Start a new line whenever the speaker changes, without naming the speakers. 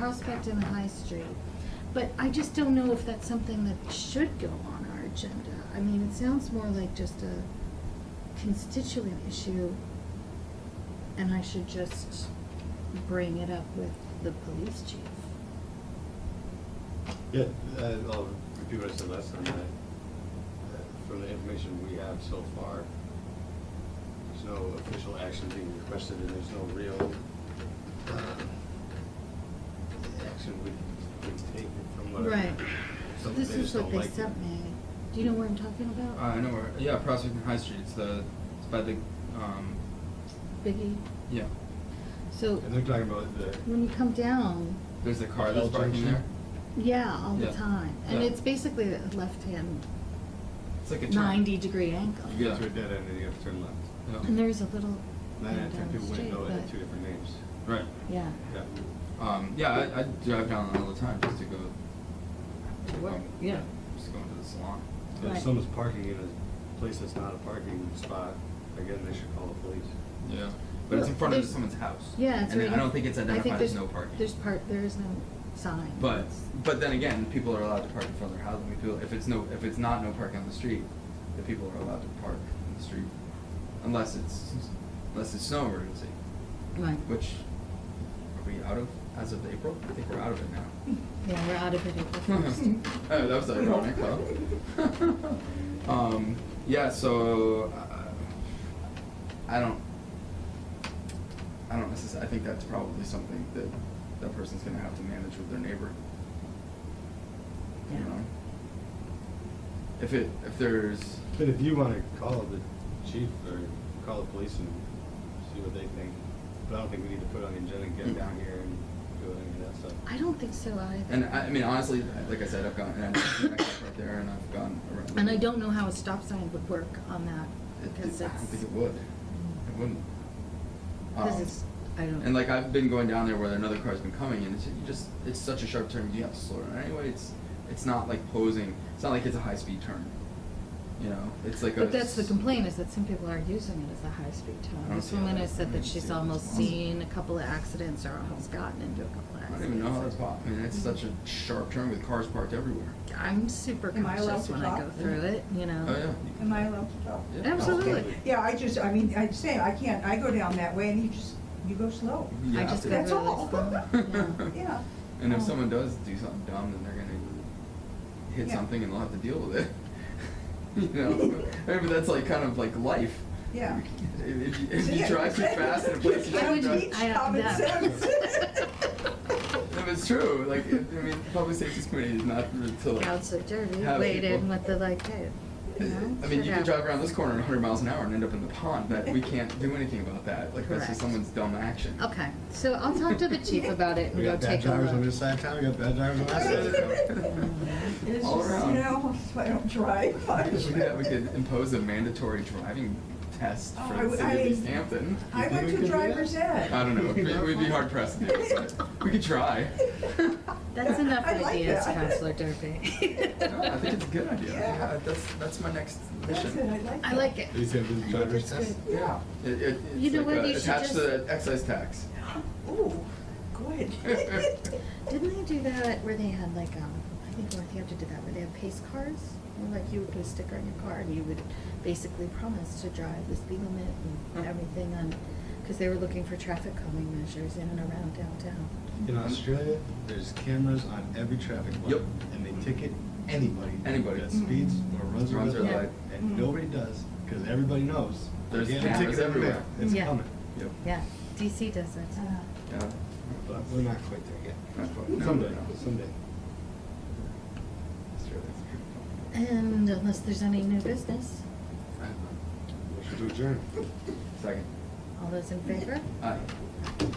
Prospect and High Street. But I just don't know if that's something that should go on our agenda. I mean, it sounds more like just a constituent issue, and I should just bring it up with the police chief.
Yeah, uh, I'll repeat what I said last time, I, uh, from the information we have so far, there's no official action being requested, and there's no real, uh, action we can take from what. I-
Right.
Some-
This
they
is
just
what
don't
they
like it.
sent me. Do you know what I'm talking about?
Uh, I know where. Yeah, Prospect and High Street. It's the it's by the um,
Biggie.
yeah.
So
And they're talking about the,
when you come down,
There's the car
Bell
that's parking
Junction?
there.
yeah, all the
Yeah.
time, and
Yeah.
it's basically a left-hand
It's like a turn.
ninety-degree angle.
you
Yeah.
get to a dead end and you have to turn left.
Yeah.
And there's a little.
Nine out of ten
down the
people
street,
wouldn't know it had
but-
two different names.
Right.
Yeah.
Yeah.
Um, yeah, I, I drive down all the time just to go.
To work,
um,
yeah.
Just going to the salon.
If
Right.
someone's parking in a place that's not a parking spot, again, they should call the police.
Yeah. But it's in
Well,
front of
there's-
someone's house.
Yeah, it's
And
right.
I don't think it's
I
identified
there's-
as no parking.
There's part, there is no sign.
But
It's-
but then again, people are allowed to park in front of their house. I mean, people, if it's no if it's not no parking on the street, the people are allowed to park in the street, unless it's unless it's snow emergency,
Right,
which are we out of as of April? I think we're out of it now.
yeah, we're out of it at the first.
oh, that was ironic, huh? um, yeah. So uh, I don't. I don't necessarily. I think that's probably something that that person's gonna have to manage with their neighbor. you
Yeah.
know? If it, if there's,
But if you wanna call the chief or call the police and see what they think, but I don't think we need to put it on the agenda and get down here and do any of that stuff.
I don't think so either.
and I, I mean, honestly, like I said, I've gone, and I've been right there, and I've gone around.
And I don't know how a stop sign would work on that,
It-
because
it- I don't
it's,
think it would, it wouldn't.
because
Um,
it's, I don't.
And like, I've been going down there where another car's been coming, and it's, you just, it's such a sharp turn, you have to slow down, anyway, it's, it's not like posing, it's not like it's a high-speed turn, you know, it's like a.
But that's the
s-
complaint, is that some people are using it as a high-speed
I
town.
don't
This
see how
woman
that-
has said
I
that
don't see
she's
how that's
almost
possible.
seen a couple of accidents or almost gotten into a couple of
I don't
accidents.
even know how that's possible, I mean, it's such a sharp turn with cars parked everywhere.
I'm super
Am I allowed
conscious
to
when I go
talk?
through it, you know?
Oh, yeah.
Am I allowed to talk?
Yeah. Oh,
Absolutely.
Okay.
Yeah, I just, I mean, I say, I can't, I go down that way and you just, you go slow.
You
I
have
just
to.
go really
That's all.
slow, yeah.
Yeah.
And if
Um,
someone does do something dumb, then they're gonna hit
Yeah.
something and they'll have to deal with it. you know, I mean, that's like kind of like life.
Yeah.
If you, if you
Yeah.
drive too fast in a place you
I
shouldn't
would
drive,
teach
I-
common
yeah.
sense.
if it's true, like it, I mean, public safety committee is not really to like.
Crowds are dirty,
have
waited
people-
with the like, hey,
I
you know?
mean,
shit
you can drive
happens.
around this corner at 100 miles an hour and end up in the pond. That we can't do anything about that. Like that's
Correct.
just someone's dumb action.
Okay, so I'll talk to the chief about it and
We
go
got bad
take a
drivers on
look.
this side of town, we got bad drivers on that side of town.
It's
All
just,
around.
you know, that's why I don't drive
We
much.
could, we could impose a mandatory driving test
Oh,
for the
I-
city
I-
of East Hampton.
I
think
went
we
to
could do that?
driver's
I
ed.
don't know, it'd be, we'd be hard pressed to do it, but we could try.
That's enough
I like
ideas,
that.
Counselor Derby.
No, I think it's a good idea,
Yeah.
Yeah, that's, that's my next
That's it, I
mission.
like
I
that.
like it.
You said the driver's
That's
test?
good.
Yeah.
It, it,
You
it's
know
like,
what,
uh,
you should
attached to
just-
the excise tax.
Ooh, good.
Didn't they do that where they had like, um, I think Northampton did that, where they had pace cars? And like you would put a sticker on your car and you would basically promise to drive the speed limit and
Huh.
everything on, because they were looking for traffic calming measures in and around downtown.
In Australia, there's cameras on every traffic light.
Yep.
And they ticket anybody.
Anybody.
That speeds or runs a
Runs
red
a red
light,
light.
and nobody does, cause everybody knows.
There's
Again,
cameras
ticket in the mail.
everywhere.
It's
Yeah.
coming, yep,
Yeah, DC does that too.
Uh,
Yeah.
but we're not quite there yet.
Not quite. No,
Someday,
no.
someday.
Australia's a good
And unless there's any new business,
country.
Motion to adjourn.
Second.
all those in favor?
Aye.